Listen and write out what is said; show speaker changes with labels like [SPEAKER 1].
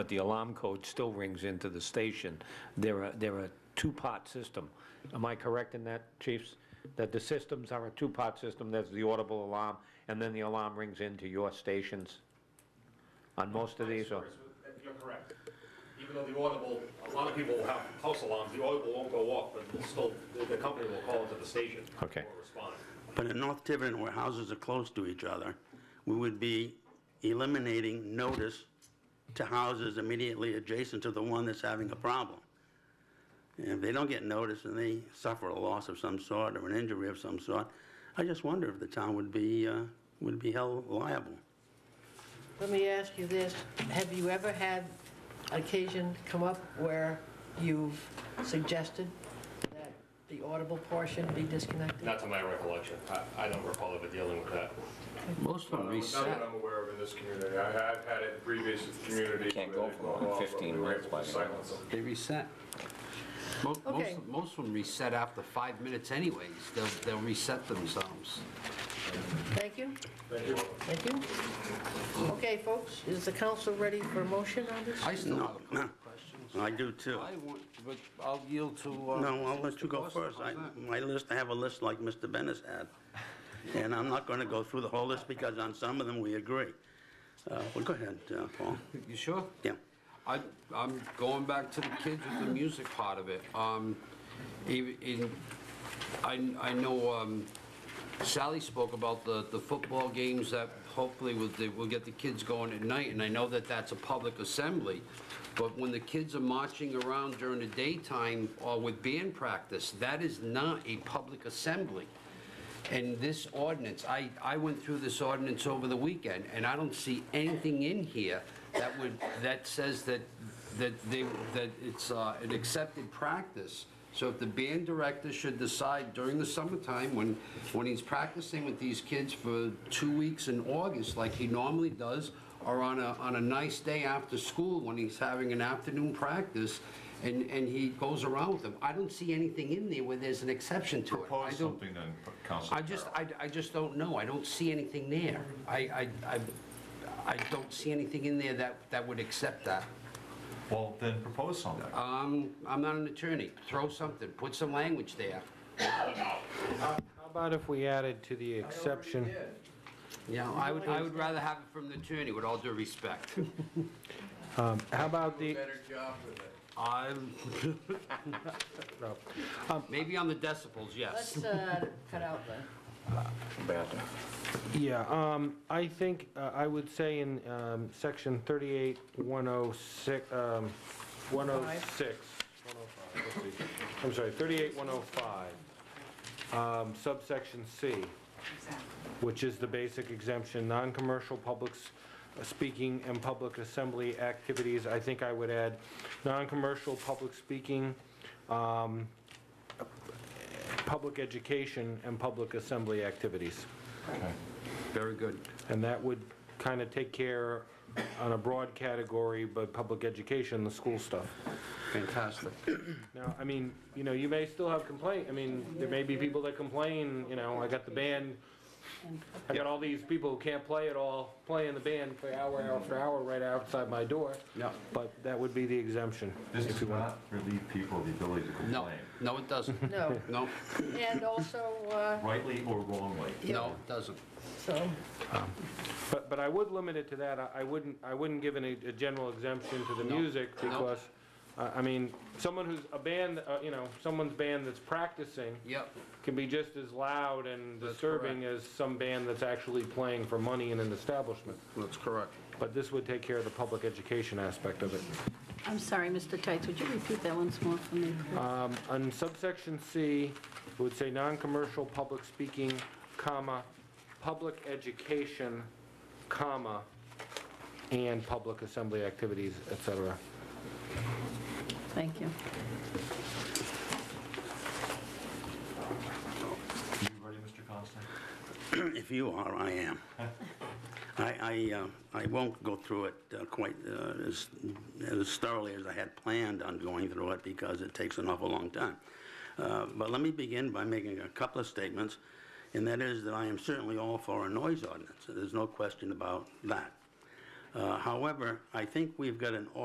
[SPEAKER 1] but the alarm code still rings into the station. They're a, they're a two-part system. Am I correct in that, chiefs? That the systems are a two-part system, there's the audible alarm, and then the alarm rings into your stations? On most of these, or?
[SPEAKER 2] Sorry, so You're correct. Even though the audible, a lot of people will have house alarms, the audible won't go off, but it's still, the the company will call into the station.
[SPEAKER 1] Okay.
[SPEAKER 2] Or respond.
[SPEAKER 3] But in North Tiverton, where houses are close to each other, we would be eliminating notice to houses immediately adjacent to the one that's having a problem. And if they don't get notice and they suffer a loss of some sort or an injury of some sort, I just wonder if the town would be, uh, would be held liable.
[SPEAKER 4] Let me ask you this, have you ever had occasion come up where you've suggested that the audible portion be disconnected?
[SPEAKER 2] Not to my recollection. I, I don't recall ever dealing with that.
[SPEAKER 5] Most of them
[SPEAKER 6] Not that
[SPEAKER 5] reset.
[SPEAKER 6] I'm aware of in this community. I have had it in previous communities.
[SPEAKER 7] Can't
[SPEAKER 6] where
[SPEAKER 7] go
[SPEAKER 6] they
[SPEAKER 7] for more than
[SPEAKER 6] off, but
[SPEAKER 7] 15
[SPEAKER 6] we were
[SPEAKER 7] minutes
[SPEAKER 6] able to
[SPEAKER 7] by the
[SPEAKER 6] silence them.
[SPEAKER 5] They reset. Most,
[SPEAKER 4] Okay.
[SPEAKER 5] most, most of them reset after five minutes anyways. They'll, they'll reset themselves.
[SPEAKER 4] Thank you. Thank you. Thank you. Okay, folks, is the council ready for a motion on this?
[SPEAKER 5] I still have a couple
[SPEAKER 3] No.
[SPEAKER 5] of questions.
[SPEAKER 3] I do too.
[SPEAKER 5] I want, but I'll yield to. uh,
[SPEAKER 3] No, I'll let you go first. I, my list, I have a list like Mr. Bennett's had. And I'm not gonna go through the whole list because on some of them we agree. Uh, well, go ahead, uh, Paul.
[SPEAKER 5] You sure?
[SPEAKER 3] Yeah.
[SPEAKER 5] I, I'm going back to the kids with the music part of it. Um, even, in, I, I know, um, Sally spoke about the, the football games that hopefully will, they will get the kids going at night, and I know that that's a public assembly, but when the kids are marching around during the daytime or with band practice, that is not a public assembly. And this ordinance, I, I went through this ordinance over the weekend, and I don't see anything in here that would, that says that, that they, that it's uh, an accepted practice. So if the band director should decide during the summertime, when, when he's practicing with these kids for two weeks in August, like he normally does, or on a, on a nice day after school, when he's having an afternoon practice, and, and he goes around with them, I don't see anything in there where there's an exception to it. I
[SPEAKER 8] Propose
[SPEAKER 5] don't-
[SPEAKER 8] something then, Councilor
[SPEAKER 5] I just, I, I just don't know. I don't see anything there. I, I, I, I don't see anything in there that, that would accept that.
[SPEAKER 8] Well, then propose something.
[SPEAKER 5] Um, I'm not an attorney. Throw something, put some language there.
[SPEAKER 9] How about if we added to the exception,
[SPEAKER 5] Yeah, I would, I would rather have it from the attorney, with all due respect.
[SPEAKER 9] how about the,
[SPEAKER 5] I'm,
[SPEAKER 9] no.
[SPEAKER 5] maybe on the decibels, yes.
[SPEAKER 4] Let's uh, cut out the,
[SPEAKER 7] Bad.
[SPEAKER 9] yeah, um, I think, uh, I would say in, um, section thirty-eight, one oh six, um, one oh six. One oh five, let's see. I'm sorry, thirty-eight, one oh five, um, subsection C, which is the basic exemption, non-commercial publics speaking and public assembly activities. I think I would add, non-commercial public speaking, um, public education and public assembly activities.
[SPEAKER 5] Very good.
[SPEAKER 9] And that would kind of take care on a broad category, but public education, the school stuff.
[SPEAKER 5] Fantastic.
[SPEAKER 9] Now, I mean, you know, you may still have complaint, I mean, there may be people that complain, you know, I got the band, I got all these people who can't play at all, playing the band for hour after hour right outside my door.
[SPEAKER 5] Yeah.
[SPEAKER 9] But that would be the exemption.
[SPEAKER 8] This does not relieve people of the ability to
[SPEAKER 5] No,
[SPEAKER 8] complain,
[SPEAKER 5] no, it doesn't.
[SPEAKER 4] no,
[SPEAKER 5] No,
[SPEAKER 4] and also, uh,
[SPEAKER 8] rightly or wrongly.
[SPEAKER 5] no, it doesn't.
[SPEAKER 4] so,
[SPEAKER 9] But, but I would limit it to that, I I wouldn't, I wouldn't give any, a general exemption to the
[SPEAKER 5] No.
[SPEAKER 9] music,
[SPEAKER 5] No.
[SPEAKER 9] because, I I mean, someone who's, a band, uh, you know, someone's band that's practicing
[SPEAKER 5] Yep,
[SPEAKER 9] can be just as loud and
[SPEAKER 5] That's
[SPEAKER 9] disturbing
[SPEAKER 5] correct.
[SPEAKER 9] as some band that's actually playing for money in an establishment.
[SPEAKER 5] that's correct.
[SPEAKER 9] But this would take care of the public education aspect of it.
[SPEAKER 10] I'm sorry, Mr. Tights, would you repeat that once more for me? please?
[SPEAKER 9] On subsection C, it would say non-commercial public speaking, comma, public education, comma, and public assembly activities, et cetera.
[SPEAKER 10] Thank you.
[SPEAKER 8] You ready, Mr. Constant?
[SPEAKER 3] If you are, I am. I, I, uh, I won't go through it uh, quite uh, as as thoroughly as I had planned on going through it because it takes an awful long time. Uh, But let me begin by making a couple of statements, and that is that I am certainly all for a noise ordinance. There's no question about that. Uh, However, I think we've got an